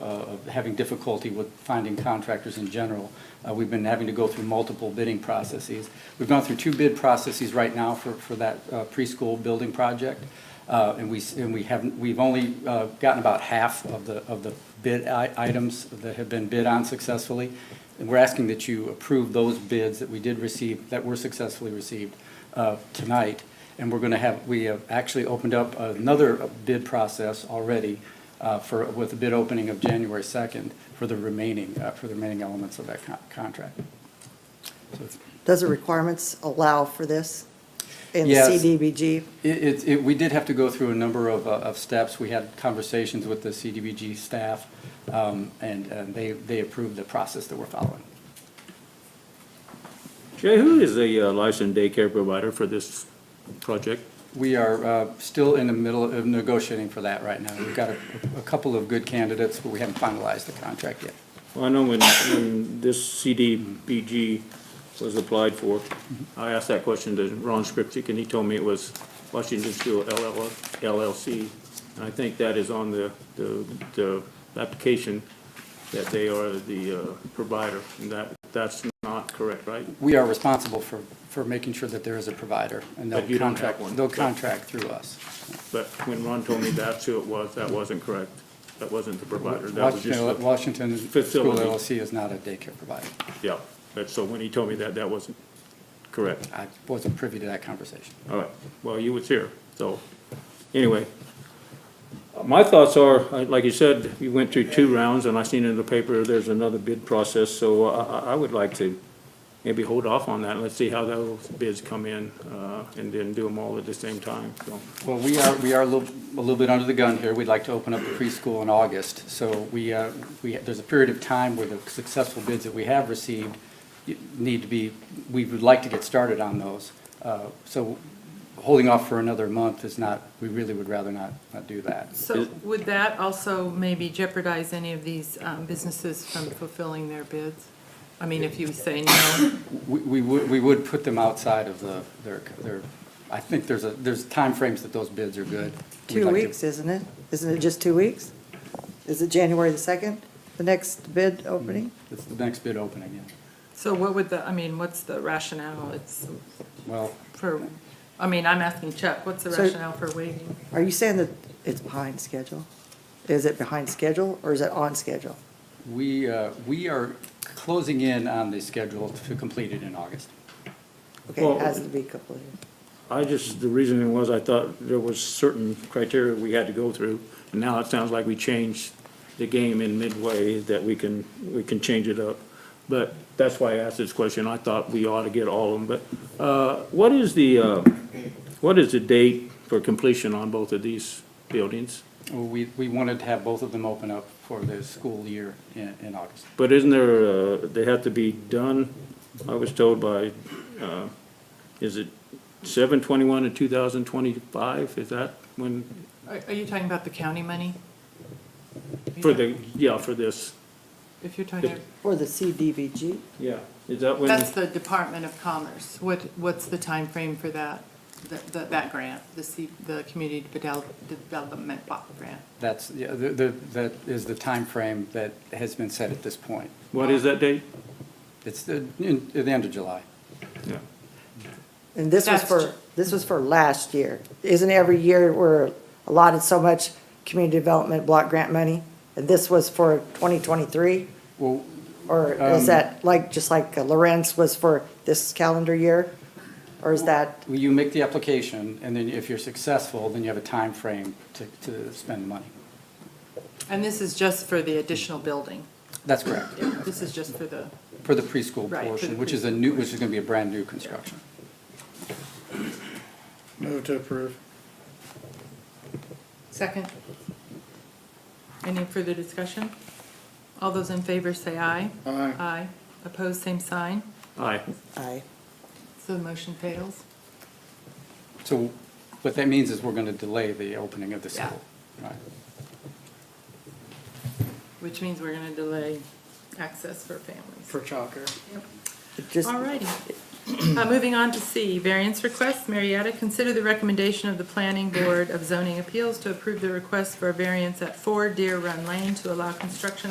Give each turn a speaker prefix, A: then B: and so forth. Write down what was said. A: uh, of having difficulty with finding contractors in general. Uh, We've been having to go through multiple bidding processes. We've gone through two bid processes right now for, for that uh, preschool building project. Uh, And we, s- and we haven't, we've only uh, gotten about half of the, of the bid i- items that have been bid on successfully. And we're asking that you approve those bids that we did receive, that were successfully received uh, tonight. And we're going to have, we have actually opened up another bid process already uh, for, with a bid opening of January 2nd for the remaining, uh, for the remaining elements of that con- contract. So it's-
B: Does the requirements allow for this in the
A: Yes.
B: CDBG?
A: It, it- it, we did have to go through a number of, uh, of steps. We had conversations with the CDBG staff, um, and, and they, they approved the process that we're following.
C: Jay, who is the uh, licensed daycare provider for this project?
A: We are uh, still in the middle of negotiating for that right now. We've got a, a couple of good candidates, but we haven't finalized the contract yet.
C: Well, I know when, when this CDBG was applied for, I asked that question to Ron Scripcik, and he told me it was Washington Steel LLC. And I think that is on the, the, the application, that they are the uh, provider, and that, that's not correct, right?
A: We are responsible for, for making sure that there is a provider, and
C: But you
A: they'll
C: don't have
A: contract,
C: one.
A: they'll contract through us.
C: But when Ron told me that's who it was, that wasn't correct. That wasn't the provider, that was just
A: Washington,
C: the,
A: Washington School
C: Facility.
A: LLC is not a daycare provider.
C: yeah. But so when he told me that, that wasn't correct.
A: I wasn't privy to that conversation.
C: All right, well, you was here, so, anyway. My thoughts are, uh, like you said, you went through two rounds, and I seen in the paper, there's another bid process, so I, I- I would like to maybe hold off on that, let's see how those bids come in, uh, and then do them all at the same time, so.
A: Well, we are, we are a little, a little bit under the gun here. We'd like to open up the preschool in August. So we, uh, we, there's a period of time where the successful bids that we have received need to be, we would like to get started on those. Uh, So holding off for another month is not, we really would rather not, not do that.
D: So would that also maybe jeopardize any of these um, businesses from fulfilling their bids? I mean, if you say no,
A: We, we would, we would put them outside of the, their, their, I think there's a, there's timeframes that those bids are good. We'd
B: Two
A: like to-
B: weeks, isn't it? Isn't it just two weeks? Is it January the 2nd, the next bid opening?
A: It's the next bid opening, yeah.
D: so what would the, I mean, what's the rationale? It's
A: Well,
D: for, I mean, I'm asking Chuck, what's the
B: So-
D: rationale for waiting?
B: Are you saying that it's behind schedule? Is it behind schedule or is it on schedule?
A: We, uh, we are closing in on the schedule to complete it in August.
B: Okay,
C: Well-
B: it has to be completed.
C: I just, the reasoning was I thought there was certain criteria we had to go through, and now it sounds like we changed the game in midway, that we can, we can change it up. But that's why I asked this question, I thought we ought to get all of them, but, uh, what is the, uh, what is the date for completion on both of these buildings?
A: We, we wanted to have both of them open up for the school year in, in August.
C: But isn't there, uh, they have to be done, I was told by, uh, is it seven twenty-one and two thousand twenty-five, is that when
D: Are are you talking about the county money?
C: For the, yeah, for this,
D: If you're talking,
B: For the CDBG,
C: yeah, is that when?
D: that's the Department of Commerce. What, what's the time frame for that, that, that- that grant, the C, the Community Devel- Development Block Grant?
A: That's, yeah, the, the, that is the timeframe that has been set at this point.
C: What is that date?
A: It's the, in, at the end of July.
C: Yeah.
B: and this was
D: That's
B: for,
D: ju-
B: this was for last year. Isn't every year we're allotted so much community development block grant money? And this was for 2023?
A: Well,
B: Or
A: Um,
B: is that like, just like Lorenz was for this calendar year? Or is that,
A: you make the application, and then if you're successful, then you have a timeframe to, to spend the money.
D: And this is just for the additional building?
A: That's correct,
D: This is just for the,
A: for the preschool
D: Right, for
A: portion,
D: the
A: which is a new, which is gonna be a brand-new construction.
E: Move to approve.
D: second. Any further discussion? All those in favor say aye.
E: Aye.
D: Aye. Opposed, same sign.
C: Aye,
B: aye,
D: So the motion fails.
A: So what that means is we're gonna delay the opening of the
D: Yeah.
A: school. Right.
D: Which means we're going to delay access for families.
E: For Chalker.
B: It just,
D: All righty. Uh, Moving on to C, variance requests. Marietta, consider the recommendation of the Planning Board of Zoning Appeals to approve the request for a variance at 4 Deer Run Lane to allow construction